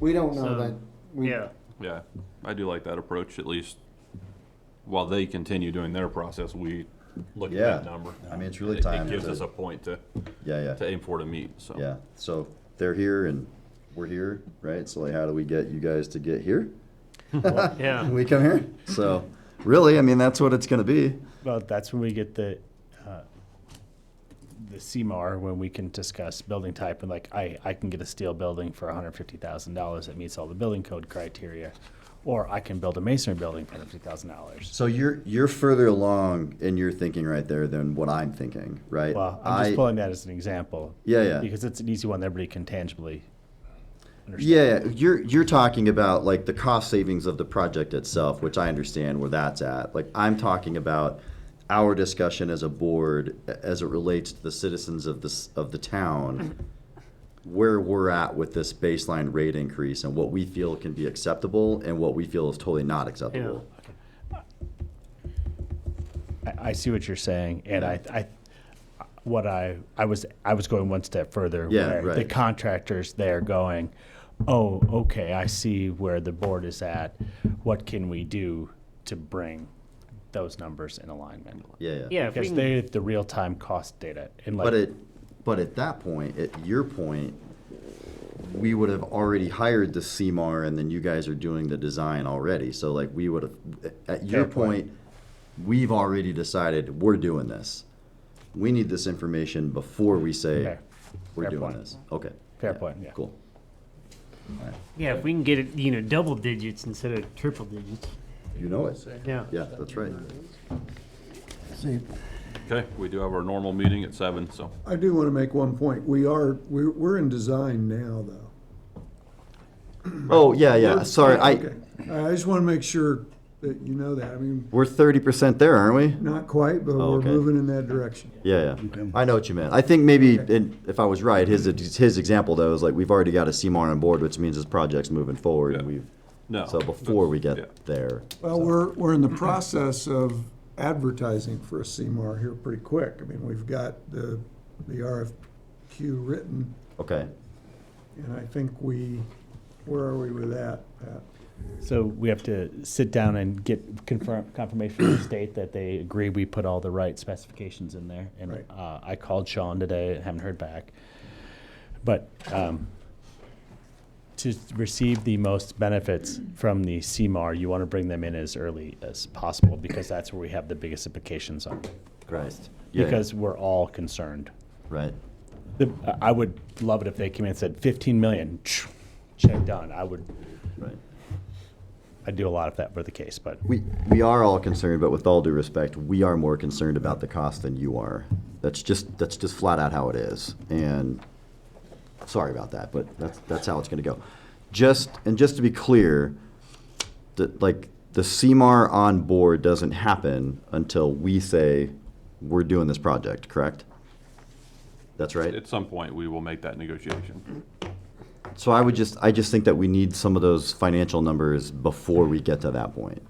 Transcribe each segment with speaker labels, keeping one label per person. Speaker 1: We don't know
Speaker 2: So,
Speaker 1: that. We,
Speaker 2: Yeah,
Speaker 3: Yeah, I do like that approach, at least while they continue doing their process, we look at that
Speaker 4: Yeah.
Speaker 3: number.
Speaker 4: I mean, it's really
Speaker 3: It-
Speaker 4: time
Speaker 3: It gives
Speaker 4: to-
Speaker 3: us a point to,
Speaker 4: Yeah, yeah.
Speaker 3: to aim for to meet, so.
Speaker 4: Yeah, so they're here and we're here, right? So like, how do we get you guys to get here?
Speaker 2: yeah.
Speaker 4: We come here. So really, I mean, that's what it's gonna be.
Speaker 5: Well, that's when we get the, uh, the CMAR, when we can discuss building type, and like, I, I can get a steel building for hundred fifty thousand dollars that meets all the building code criteria, or I can build a masonry building for hundred fifty thousand dollars.
Speaker 4: So you're you're further along in your thinking right there than what I'm thinking, right?
Speaker 5: Well, I'm just
Speaker 4: I-
Speaker 5: pulling that as an example.
Speaker 4: Yeah, yeah.
Speaker 5: Because it's an easy one that everybody can tangibly understand.
Speaker 4: Yeah, you're you're talking about like the cost savings of the project itself, which I understand where that's at. Like I'm talking about our discussion as a board a- as it relates to the citizens of this of the town where we're at with this baseline rate increase and what we feel can be acceptable and what we feel is totally not acceptable.
Speaker 5: I, I see what you're saying, and I, I, what I, I was, I was going one step further.
Speaker 4: Yeah,
Speaker 5: where The
Speaker 4: right.
Speaker 5: contractors there going, oh, okay, I see where the board is at. What can we do to bring those numbers in alignment?
Speaker 4: Yeah,
Speaker 2: Yeah,
Speaker 4: yeah.
Speaker 2: if we
Speaker 5: Because
Speaker 2: can-
Speaker 5: they have the real time cost data, and like,
Speaker 4: But at but at that point, at your point, we would have already hired the CMAR, and then you guys are doing the design already. So like we would have, at your
Speaker 5: Fair point.
Speaker 4: point, we've already decided we're doing this. We need this information before we say
Speaker 5: Fair.
Speaker 4: we're
Speaker 5: Fair
Speaker 4: doing
Speaker 5: point.
Speaker 4: this. Okay.
Speaker 5: Fair point, yeah.
Speaker 4: Cool.
Speaker 2: yeah, if we can get it, you know, double digits instead of triple digits,
Speaker 4: You know it.
Speaker 2: yeah.
Speaker 4: Yeah, that's right.
Speaker 6: See,
Speaker 3: Okay, we do have our normal meeting at seven, so.
Speaker 6: I do want to make one point. We are, we're, we're in design now, though.
Speaker 4: Oh, yeah, yeah. Sorry, I,
Speaker 6: Okay. I just want to make sure that you know that. I mean,
Speaker 4: we're thirty percent there, aren't we?
Speaker 6: not quite, but
Speaker 2: Oh,
Speaker 6: we're
Speaker 4: okay.
Speaker 6: moving in that direction.
Speaker 4: Yeah, yeah. I know what you meant. I think maybe, in- if I was right, his, his example though is like, we've already got a CMAR on board, which means his project's moving forward and
Speaker 3: Yeah.
Speaker 4: we've,
Speaker 3: No.
Speaker 4: so before we
Speaker 3: yeah.
Speaker 4: get there.
Speaker 6: Well, we're, we're in the process of advertising for a CMAR here pretty quick. I mean, we've got the, the RFQ written,
Speaker 4: Okay,
Speaker 6: and I think we, where are we with that, Pat?
Speaker 5: so we have to sit down and get confirm, confirmation from the state that they agree we put all the right specifications in there. And
Speaker 6: Right.
Speaker 5: uh, I called Sean today, haven't heard back. But um, to receive the most benefits from the CMAR, you want to bring them in as early as possible because that's where we have the biggest implications on
Speaker 4: right.
Speaker 5: cost.
Speaker 4: Yeah, yeah,
Speaker 5: Because we're all concerned.
Speaker 4: Right.
Speaker 5: The, I would love it if they came in and said 15 million, check done. I would,
Speaker 4: Right.
Speaker 5: I'd do a lot if that were the case, but.
Speaker 4: We, we are all concerned, but with all due respect, we are more concerned about the cost than you are. That's just, that's just flat out how it is. And sorry about that, but that's, that's how it's gonna go. Just, and just to be clear, that like the CMAR on board doesn't happen until we say we're doing this project, correct? That's right?
Speaker 3: At some point, we will make that negotiation.
Speaker 4: So I would just, I just think that we need some of those financial numbers before we get to that point.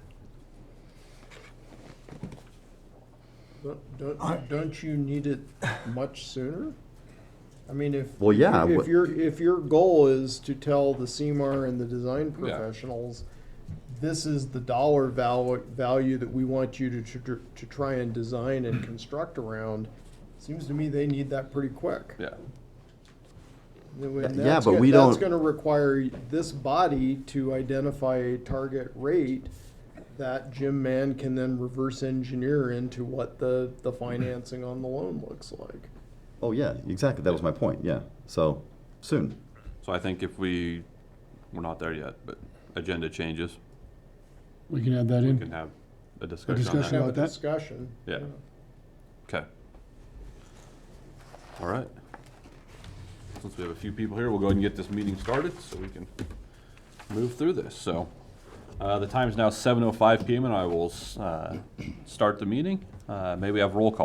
Speaker 7: Don't- Don't, don't you need it much sooner? I mean, if.
Speaker 4: Well, yeah,
Speaker 7: If
Speaker 4: what-
Speaker 7: your, if your goal is to tell the CMAR and the design
Speaker 3: Yeah.
Speaker 7: professionals, this is the dollar val- value that we want you to, tr- to try and design and construct around, seems to me they need that pretty quick.
Speaker 3: Yeah.
Speaker 7: And when
Speaker 4: Yeah,
Speaker 7: that's
Speaker 4: but
Speaker 7: go-
Speaker 4: we
Speaker 7: That's
Speaker 4: don't-
Speaker 7: gonna require this body to identify a target rate that Jim Mann can then reverse engineer into what the, the financing on the loan looks like.
Speaker 4: Oh, yeah, exactly. That was my point, yeah. So, soon.
Speaker 3: So I think if we, we're not there yet, but agenda changes,
Speaker 8: We can add that
Speaker 3: we
Speaker 8: in.
Speaker 3: can have a discussion on
Speaker 8: discussion
Speaker 3: that.
Speaker 7: Have a
Speaker 8: about that?
Speaker 7: discussion.
Speaker 3: Yeah. Okay. All right. Since we have a few people here, we'll go ahead and get this meeting started so we can move through this. So uh, the time is now 7:05 PM and I will uh, start the meeting. Uh, May we have roll call?